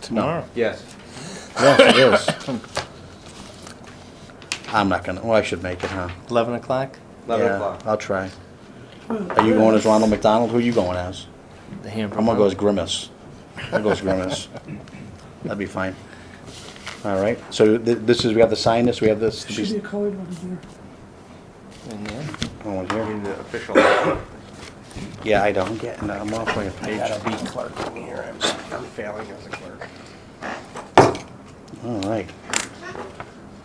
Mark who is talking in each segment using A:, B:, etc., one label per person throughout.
A: tomorrow.
B: Yes.
A: Yes, it is. I'm not gonna, well, I should make it, huh?
C: 11 o'clock,
B: 11
A: Yeah,
B: o'clock.
A: I'll try. Are you going as Ronald McDonald? Who are you going as?
C: the hamburger.
A: I'm gonna go as Grimace. I'll go as Grimace. That'd be fine. All right, so th- this is, we have to sign this, we have this.
D: There Should be a colored one in there.
C: In there.
A: Oh,
B: I
A: here.
B: mean, the official.
A: Yeah, I don't get, no, I'm off by a
C: I
A: page.
C: gotta be clerking here. I'm, I'm failing as a clerk.
A: All right.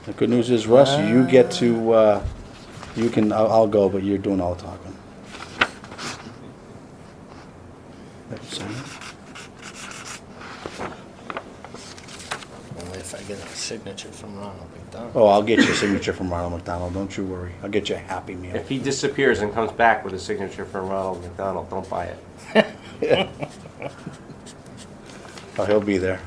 A: The good news is, Russ, you get to, uh, you can, I'll, I'll go, but you're doing all the talking. Let's see.
C: Only if I get a signature from Ronald McDonald.
A: Oh, I'll get you a signature from Ronald McDonald, don't you worry. I'll get you a happy meal.
B: If he disappears and comes back with a signature from Ronald McDonald, don't buy it.
A: Oh, he'll be there.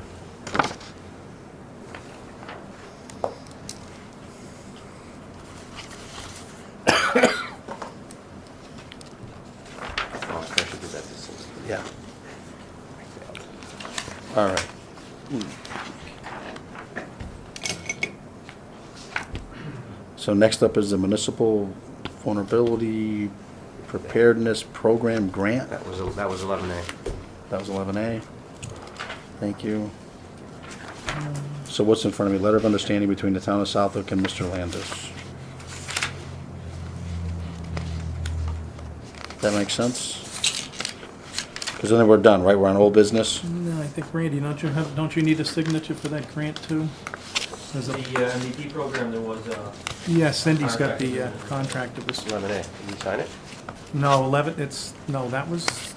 B: Oh, I should do that to Cindy.
A: Yeah. All right. So next up is the municipal vulnerability preparedness program grant.
B: That was, that was 11A.
A: That was eleven A. Thank you. So what's in front of me? Letter of understanding between the town of Southwick and Mr. Landis. That makes sense? Because then we're done, right? We're on old business?
D: No, I think Randy, don't you have, don't you need a signature for that grant too? There's
E: The
D: a-
E: uh, MVP program, there was uh, a,
D: Yeah, Cindy's got the uh, contract of this,
B: 11A. Did you sign it?
D: no, eleven, it's, no, that was,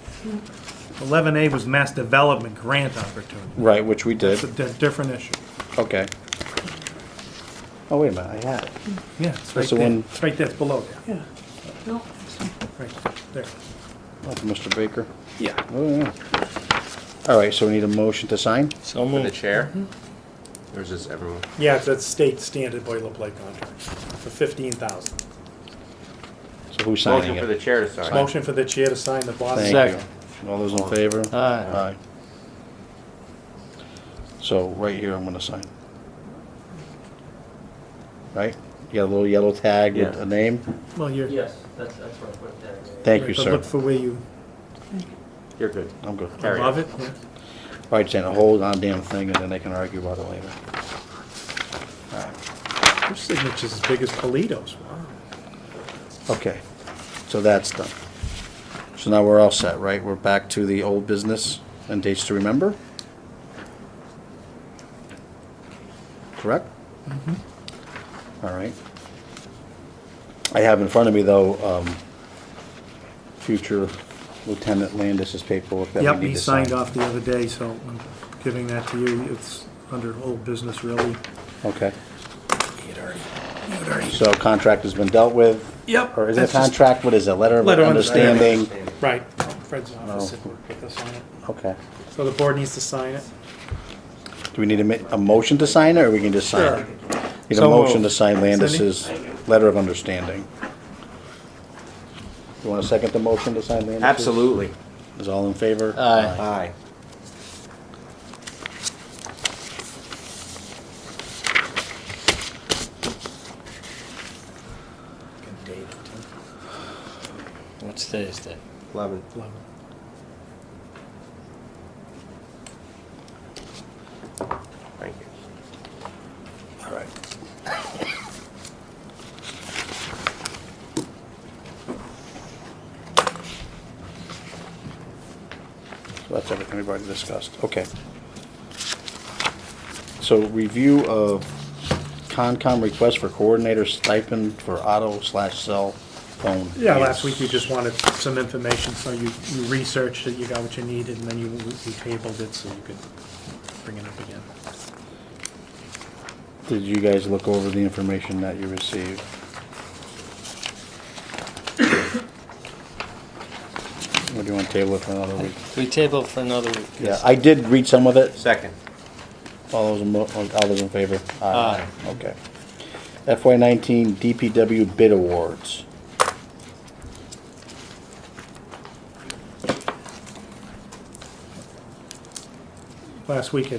D: eleven A was mass development grant opportunity.
A: Right, which we
D: It's a
A: did.
D: di- different issue.
A: Okay. Oh, wait a minute, I had it.
D: Yeah, it's right
A: That's the
D: there,
A: one-
D: it's right there, it's below there. Yeah. Right, there.
A: Oh, Mr. Baker? Yeah. Oh, yeah. All right, so we need a motion to sign?
C: So
B: From the
C: moved.
B: chair? Or is this everyone?
D: Yeah, it's that state standard boilerplate contract for fifteen thousand.
A: So who's signing
B: Motion for the
A: it?
B: chair to sign.
D: Motion for the chair to sign the bottom.
A: Thank
C: Second.
A: you. All those in favor?
B: Uh,
C: Aye.
A: So right here, I'm gonna sign. Right? You got a little yellow tag with
B: Yeah.
A: a name?
D: Well, you're,
E: yes, that's, that's what I put there.
A: Thank you,
D: but
A: sir.
D: Look for where you,
B: You're good.
A: I'm good. All
B: Carry
D: above it, yeah.
A: right, Santa, hold on damn thing, and then they can argue about it later. All right.
D: Your signature's as big as Polito's. Wow.
A: Okay, so that's done. So now we're all set, right? We're back to the old business and dates to remember? Correct?
D: Mm-hmm.
A: All right. I have in front of me, though, um, future Lieutenant Landis's paperwork that
D: Yep,
A: we need
D: he
A: to sign.
D: signed off the other day, so I'm giving that to you. It's under old business, really.
A: Okay,
D: Alright.
A: so contract has been dealt with?
D: Yep,
A: Or is it a
D: that's just-
A: contract? What is it? Letter of
D: Letter of
A: understanding?
D: Right, Fred's office had worked with us on it.
A: Okay.
D: So the board needs to sign it.
A: Do we need a, ma- a motion to sign it, or we can just sign it? Need a
C: So
A: motion to
C: moved.
A: sign Landis's letter of understanding. You want to second the motion to sign Landis's?
B: Absolutely.
A: Is all in favor?
C: Aye.
B: Aye.
C: Good date, too. What's today's date?
B: 11. Thank you.
A: All right. So that's everything we've already discussed, okay. So review of Concom request for coordinator stipend for auto slash cell phone.
D: Yeah, last
A: use.
D: week you just wanted some information, so you, you researched it, you got what you needed, and then you, you tabled it so you could bring it up again.
A: Did you guys look over the information that you received? Or do you want to table it for another week?
C: We table for another week.
A: Yeah, I did read some of it.
B: Second.
A: All those, in mo- all those in favor?
C: Aye.
A: Okay. FY nineteen DPW bid awards.
D: Last week it